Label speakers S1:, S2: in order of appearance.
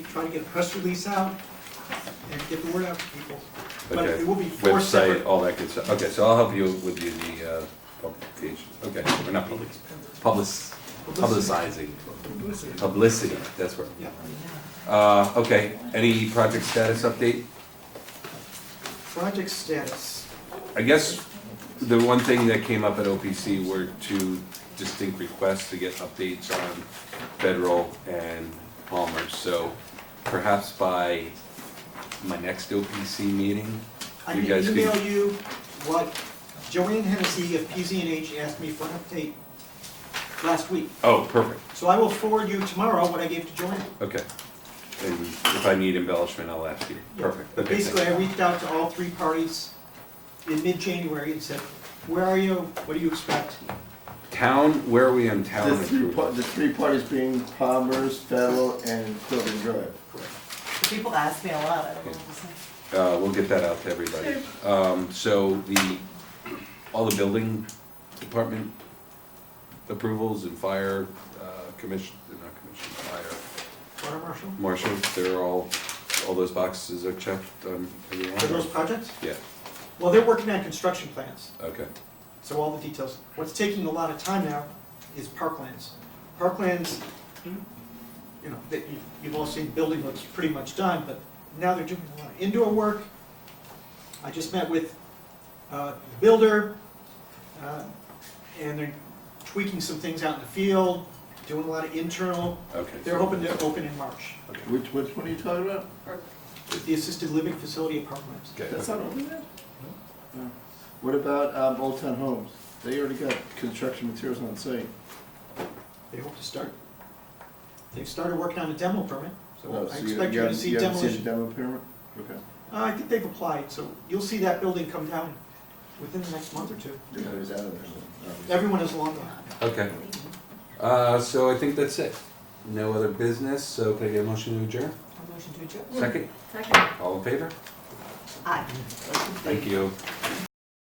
S1: try to get a press release out and get the word out to people. But
S2: Okay.
S1: it will be four
S2: Website,
S1: separate.
S2: all that good stuff. Okay, so I'll help you with you the uh, publication, okay, or not public, public, publicizing,
S1: Publicity.
S2: publicity, that's right.
S1: Yeah,
S2: Uh, okay, any project status update?
S1: project status.
S2: I guess the one thing that came up at OPC were two distinct requests to get updates on Federal and Palmer. So perhaps by my next OPC meeting,
S1: I
S2: you
S1: can
S2: guys
S1: email
S2: could,
S1: you what Joanne Hennessy of PZNH asked me for an update last week.
S2: oh, perfect,
S1: So I will forward you tomorrow what I gave to Joanne.
S2: okay. And if I need embellishment, I'll ask you,
S1: Yeah.
S2: perfect.
S1: But
S2: Okay,
S1: basically,
S2: thanks.
S1: I reached out to all three parties in mid-January and said, where are you? What do you expect?
S2: Town, where are we on town
S3: The three, par-
S2: improvement?
S3: the three parties being Palmer's, Federal, and Quilton Drive.
S4: People ask me a lot, I don't know what to say.
S2: Uh, we'll get that out to everybody. Um, so the, all the building department approvals and fire, uh, commission, not commission, fire,
S1: Water marshal?
S2: marshal, they're all, all those boxes are checked on every one
S1: For
S2: of
S1: those
S2: them?
S1: projects?
S2: Yeah,
S1: Well, they're working on construction plans,
S2: okay,
S1: so all the details. What's taking a lot of time now is parklands. Parklands, you know, that you- you've all seen, building looks pretty much done, but now they're doing a lot of indoor work. I just met with uh, the builder, uh, and they're tweaking some things out in the field, doing a lot of internal.
S2: okay.
S1: They're hoping to open in March,
S3: Which, which one are you talking about?
S1: with the assisted living facility at Parklands.
S2: Okay,
S3: That's not open yet? No. What about, um, Old Town Homes? They already got construction materials on site.
S1: They hope to start. They've started working on a demo permit,
S3: Oh,
S1: so I
S3: you-
S1: expect
S3: you
S1: you to
S3: haven't-
S1: see
S3: you haven't
S1: demolition.
S3: seen the demo permit? Okay.
S1: Uh, I think they've applied, so you'll see that building come down within the next month or two.
S3: It was out of there.
S1: Everyone is along that.
S2: okay. Uh, so I think that's it. No other business, so can I get a motion to adjourn?
S4: A motion to adjourn?
S2: Second,
S4: Second.
S2: all in favor?
S4: Aye.
S2: Thank you.